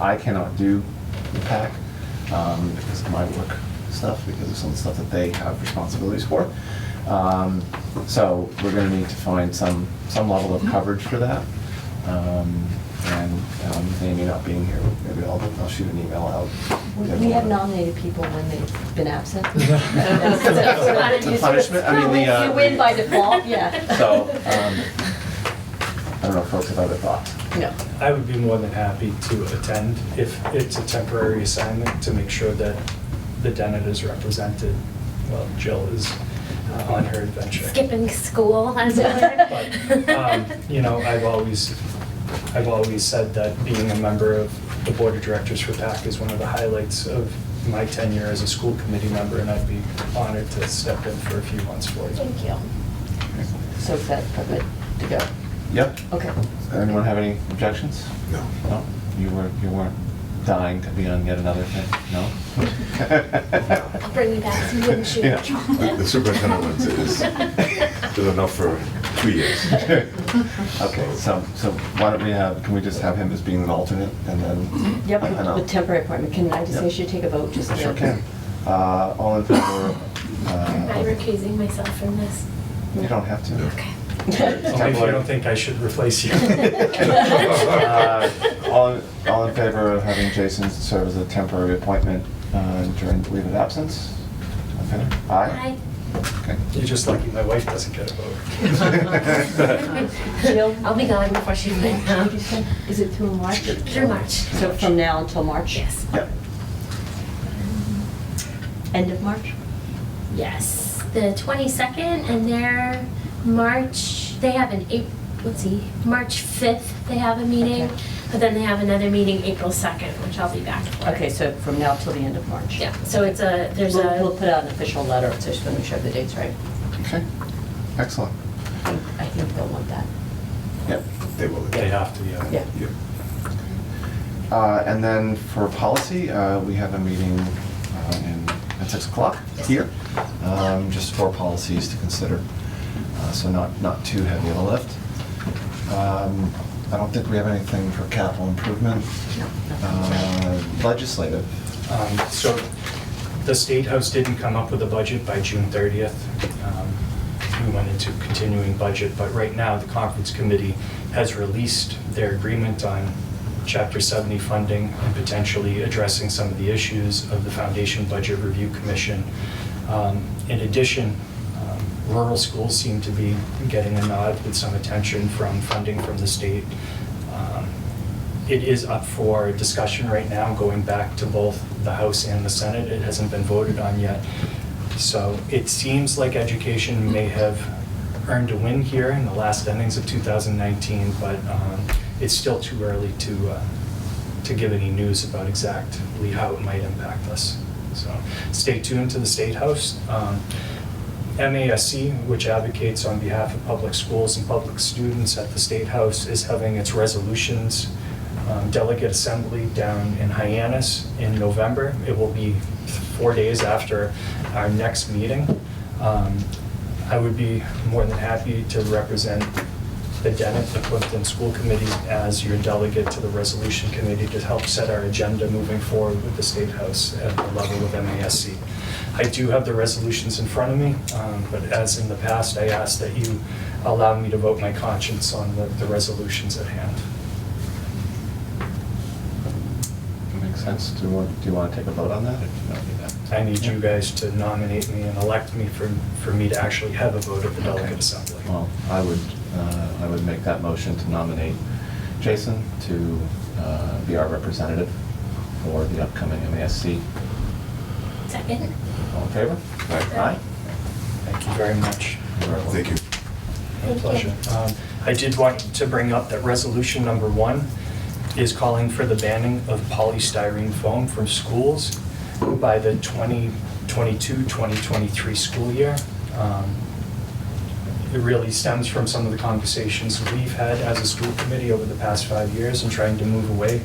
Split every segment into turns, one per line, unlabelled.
I cannot do the PAC um, because of my work stuff, because of some of the stuff that they have responsibilities for. Um, So we're going to need to find some, some level of coverage for that. Um, And um, Amy not being here, maybe I'll, I'll shoot an email out.
We we have nominated people when they've been absent.
The punishment, I mean, the, uh,
You win by default, yeah.
So, um, I don't know, if folks have other thoughts.
No.
I would be more than happy to attend if it's a temporary assignment to make sure that the Denet is represented while Jill is uh, on her adventure.
Skipping school, as it
But, um,
were.
You know, I've always, I've always said that being a member of the Board of Directors for PAC is one of the highlights of my tenure as a school committee member, and I'd be honored to step in for a few months for you.
Thank you.
So is that are good to go?
Yep.
Okay.
Anyone have any objections?
No.
No? You weren't, you weren't dying to be on yet another thing, no?
I'll bring you back some wooden
Yeah.
shoes.
The- the superintendent ones is- Did enough for two years.
Okay, so, so why don't we have, can we just have him as being an alternate and then?
Yep,
I don't know.
with temporary appointment, can I just
Yep.
make sure you take a vote just to?
Sure can. Uh, all in favor?
I'm
uh,
recusing myself from this.
You don't have to.
Okay.
Only if you don't think I should replace you.
Uh, All, all in favor of having Jason serve as a temporary appointment uh, during leave of absence? Okay. Aye?
Hi.
Okay.
You're just lucky my wife doesn't get a vote.
Jill?
I'll be gone before she's
What
in.
did you say? Is it through March?
Through March.
So from now until March?
Yes.
Yep.
End of March?
Yes, the 22nd, and their March, they have an April, let's see, March 5th, they have a meeting,
Okay.
but then they have another meeting April 2nd, which I'll be back for.
Okay, so from now till the end of March?
Yeah, so it's a, there's
We'll- We'll
a,
put out an official letter, so just want to make sure the date's right.
Okay, excellent.
I think- I think they'll want that,
Yep.
They will.
They have to, yeah.
yeah.
Yep.
Uh, And then for policy, uh, we have a meeting uh, in- at 6 o'clock here, um, just for policies to consider, Uh, so not, not too heavy of a lift. Um, I don't think we have anything for capital improvement. Uh, Legislative,
Um, So the State House didn't come up with a budget by June 30th. Um, We went into continuing budget, but right now, the conference committee has released their agreement on Chapter 70 funding and potentially addressing some of the issues of the Foundation Budget Review Commission. Um, In addition, um, rural schools seem to be getting a nod with some attention from funding from the state. Um, it is up for discussion right now, going back to both the House and the Senate. It hasn't been voted on yet. So it seems like education may have earned a win here in the last innings of 2019, but um, it's still too early to, uh, to give any news about exactly how it might impact us. So stay tuned to the State House. Um, MASC, which advocates on behalf of public schools and public students at the State House, is having its resolutions um, delegate assembly down in Hyannis in November. It will be four days after our next meeting. Um, I would be more than happy to represent the Dennett, the Clifton School Committee as your delegate to the resolution committee to help set our agenda moving forward with the State House at the level of MASC. I do have the resolutions in front of me, um, but as in the past, I ask that you allow me to vote my conscience on the, the resolutions at hand.
makes sense, do you want, do you want to take a vote on that? or do you not need that?
I need you guys to nominate me and elect me for, for me to actually have a vote at the
Okay.
delegate assembly.
Well, I would, uh, I would make that motion to nominate Jason to uh, be our representative for the upcoming MASC.
second,
All in favor?
Aye.
Thank you very much.
You're welcome.
Thank you.
My
Thank you.
pleasure. Um, I did want to bring up that resolution number one is calling for the banning of polystyrene foam from schools by the 2022-2023 school year. Um, It really stems from some of the conversations we've had as a school committee over the past five years and trying to move away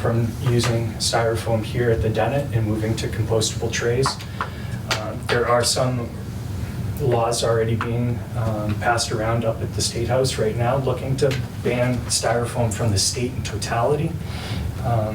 from using styrofoam here at the Dennett and moving to compostable trays. Uh, There are some laws already being um, passed around up at the State House right now, looking to ban styrofoam from the state in totality. Um,